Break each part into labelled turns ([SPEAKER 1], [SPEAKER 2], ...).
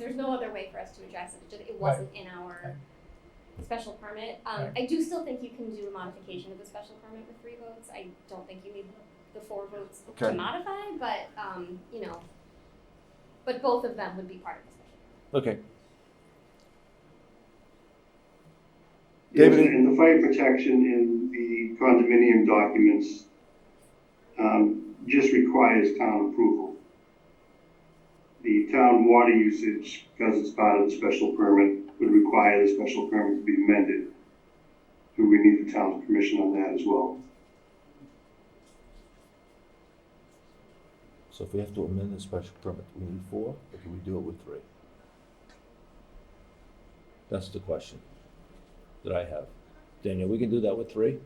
[SPEAKER 1] there's no other way for us to address it, it just, it wasn't in our special permit. Um, I do still think you can do a modification of the special permit with three votes, I don't think you need the four votes to
[SPEAKER 2] Okay.
[SPEAKER 1] modify, but, um, you know, but both of them would be part of the special.
[SPEAKER 2] Okay.
[SPEAKER 3] Yes,
[SPEAKER 2] David?
[SPEAKER 3] and the fire protection in the condominium documents um, just requires town approval. The town water usage, because it's part of the special permit, would require the special permit to be amended. So we need the town's permission on that as well.
[SPEAKER 2] So if we have to amend the special permit, we need four, or can we do it with three? That's the question that I have. Daniel, we can do that with three?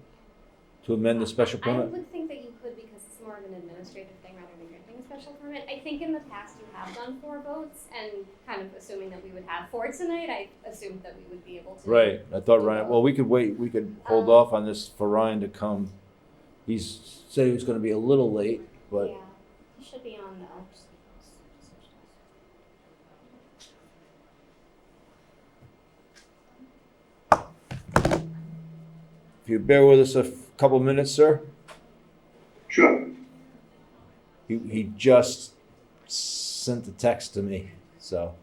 [SPEAKER 2] To amend the special
[SPEAKER 1] I
[SPEAKER 2] permit?
[SPEAKER 1] would think that you could because it's more of an administrative thing rather than granting a special permit. I think in the past you have done four votes and kind of assuming that we would have four tonight, I assumed that we would be able to.
[SPEAKER 2] Right, I thought Ryan, well, we could wait, we could hold
[SPEAKER 1] Um,
[SPEAKER 2] off on this for Ryan to come. He's, said he was gonna be a little late, but
[SPEAKER 1] Yeah, he should be on the.
[SPEAKER 2] if you bear with us a f- couple minutes, sir?
[SPEAKER 3] Sure,
[SPEAKER 2] He, he just sent the text to me, so.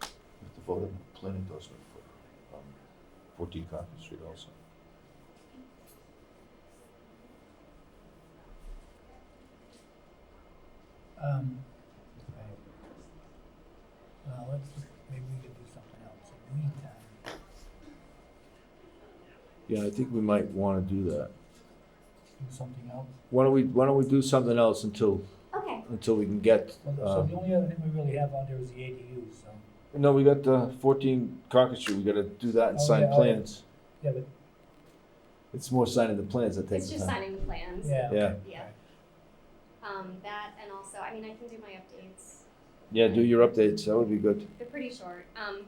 [SPEAKER 4] The vote on the plan endorsement for um, 14 Concord Street also.
[SPEAKER 5] Um, well, let's, maybe we could do something else in the meantime.
[SPEAKER 2] Yeah, I think we might wanna do that.
[SPEAKER 5] Do something else.
[SPEAKER 2] Why don't we, why don't we do something else until,
[SPEAKER 1] Okay,
[SPEAKER 2] until we can get,
[SPEAKER 5] Well, so
[SPEAKER 2] uh,
[SPEAKER 5] the only other thing we really have on there is the ADU, so,
[SPEAKER 2] no, we got the fourteen Concord Street, we gotta do that and
[SPEAKER 5] Oh,
[SPEAKER 2] sign
[SPEAKER 5] yeah, oh,
[SPEAKER 2] plans.
[SPEAKER 5] yeah, but,
[SPEAKER 2] It's more signing the plans that takes
[SPEAKER 1] it's
[SPEAKER 2] the
[SPEAKER 1] just
[SPEAKER 2] time.
[SPEAKER 1] signing the plans.
[SPEAKER 5] yeah. okay,
[SPEAKER 2] Yeah.
[SPEAKER 5] all
[SPEAKER 1] Yeah.
[SPEAKER 5] right.
[SPEAKER 1] Um, that and also, I mean, I can do my updates.
[SPEAKER 2] Yeah, do your updates, that would be good.
[SPEAKER 1] They're pretty short. Um,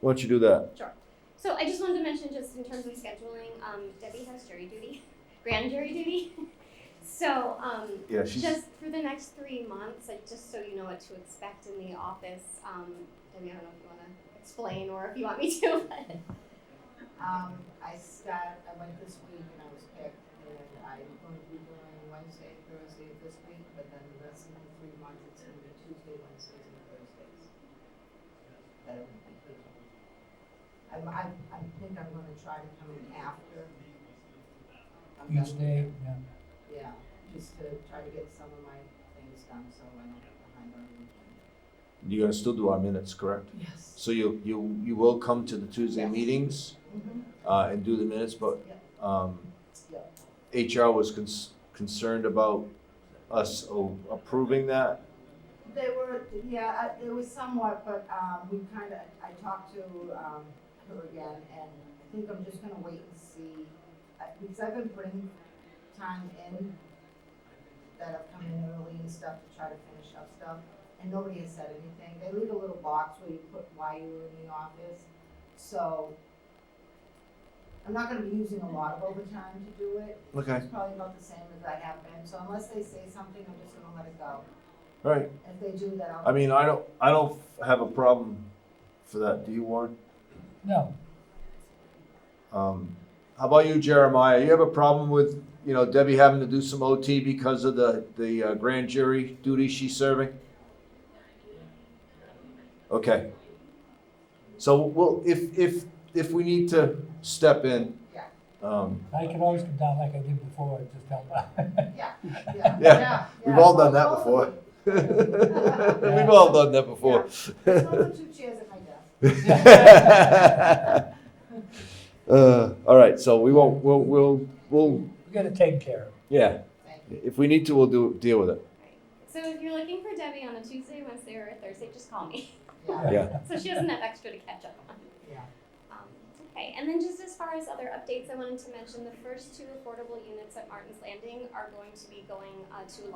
[SPEAKER 2] Why don't you do that?
[SPEAKER 1] Sure. So I just wanted to mention, just in terms of scheduling, um, Debbie has jury duty, grand jury duty. So, um,
[SPEAKER 2] Yeah,
[SPEAKER 1] just for the next three months, like, just so you know what to expect in the office, um, Debbie, I don't know if you wanna explain or if you want me to, but.
[SPEAKER 6] Um, I start, I went this week and I was picked, and I'm going to be doing Wednesday, and Thursday of this week, but then the rest of the three months, it's gonna be Tuesday, Wednesdays, and Thursdays. That I would be doing. I'm, I, I think I'm gonna try to come in after. I'm done
[SPEAKER 5] Each day,
[SPEAKER 6] with-
[SPEAKER 5] yeah,
[SPEAKER 6] Yeah, just to try to get some of my things done, so I don't get behind on anything.
[SPEAKER 2] You're gonna still do our minutes, correct?
[SPEAKER 6] Yes.
[SPEAKER 2] So you, you, you will come to the Tuesday
[SPEAKER 6] Yes.
[SPEAKER 2] meetings,
[SPEAKER 6] Mm-hmm,
[SPEAKER 2] uh, and do the minutes, but, um,
[SPEAKER 6] yeah.
[SPEAKER 2] HR was cons- concerned about us o- approving that.
[SPEAKER 6] They were, yeah, I- it was somewhat, but um, we kind of, I talked to um, her again, and I think I'm just gonna wait and see. uh, Because I've been putting time in, that I've come in early and stuff to try to finish up stuff, and nobody has said anything. They leave a little box where you put why you were in the office, so I'm not gonna be using a lot of overtime to do it.
[SPEAKER 2] Okay.
[SPEAKER 6] It's probably about the same as I have been, so unless they say something, I'm just gonna let it go.
[SPEAKER 2] All right.
[SPEAKER 6] If they do, then I'll.
[SPEAKER 2] I mean, I don't, I don't have a problem for that. Do you, Warren?
[SPEAKER 5] no,
[SPEAKER 2] Um, how about you, Jeremiah? You have a problem with, you know, Debbie having to do some OT because of the, the uh, grand jury duty she's serving? Okay. So we'll, if, if, if we need to step in,
[SPEAKER 6] Yeah.
[SPEAKER 2] um,
[SPEAKER 5] I could always come down like I did before, and just help out.
[SPEAKER 6] Yeah,
[SPEAKER 2] Yeah.
[SPEAKER 6] yeah, yeah.
[SPEAKER 2] we've
[SPEAKER 6] yeah.
[SPEAKER 2] all done that
[SPEAKER 6] Both of
[SPEAKER 2] before.
[SPEAKER 6] them.
[SPEAKER 2] We've all done that before.
[SPEAKER 6] There's no two chairs at my desk.
[SPEAKER 2] uh, all right, so we won't. We'll, we'll. We'll.
[SPEAKER 5] We gotta take care of
[SPEAKER 2] Yeah.
[SPEAKER 6] Thank you.
[SPEAKER 2] If we need to, we'll do deal with it.
[SPEAKER 1] So if you're looking for Debbie on a Tuesday, Wednesday, or a Thursday, just call me.
[SPEAKER 6] Yeah,
[SPEAKER 5] it.
[SPEAKER 2] Yeah.
[SPEAKER 1] So she doesn't have extra to catch up on.
[SPEAKER 6] yeah.
[SPEAKER 1] Um, Okay, and then just as far as other updates, I wanted to mention the first two affordable units at Martin's Landing are going to be going uh, to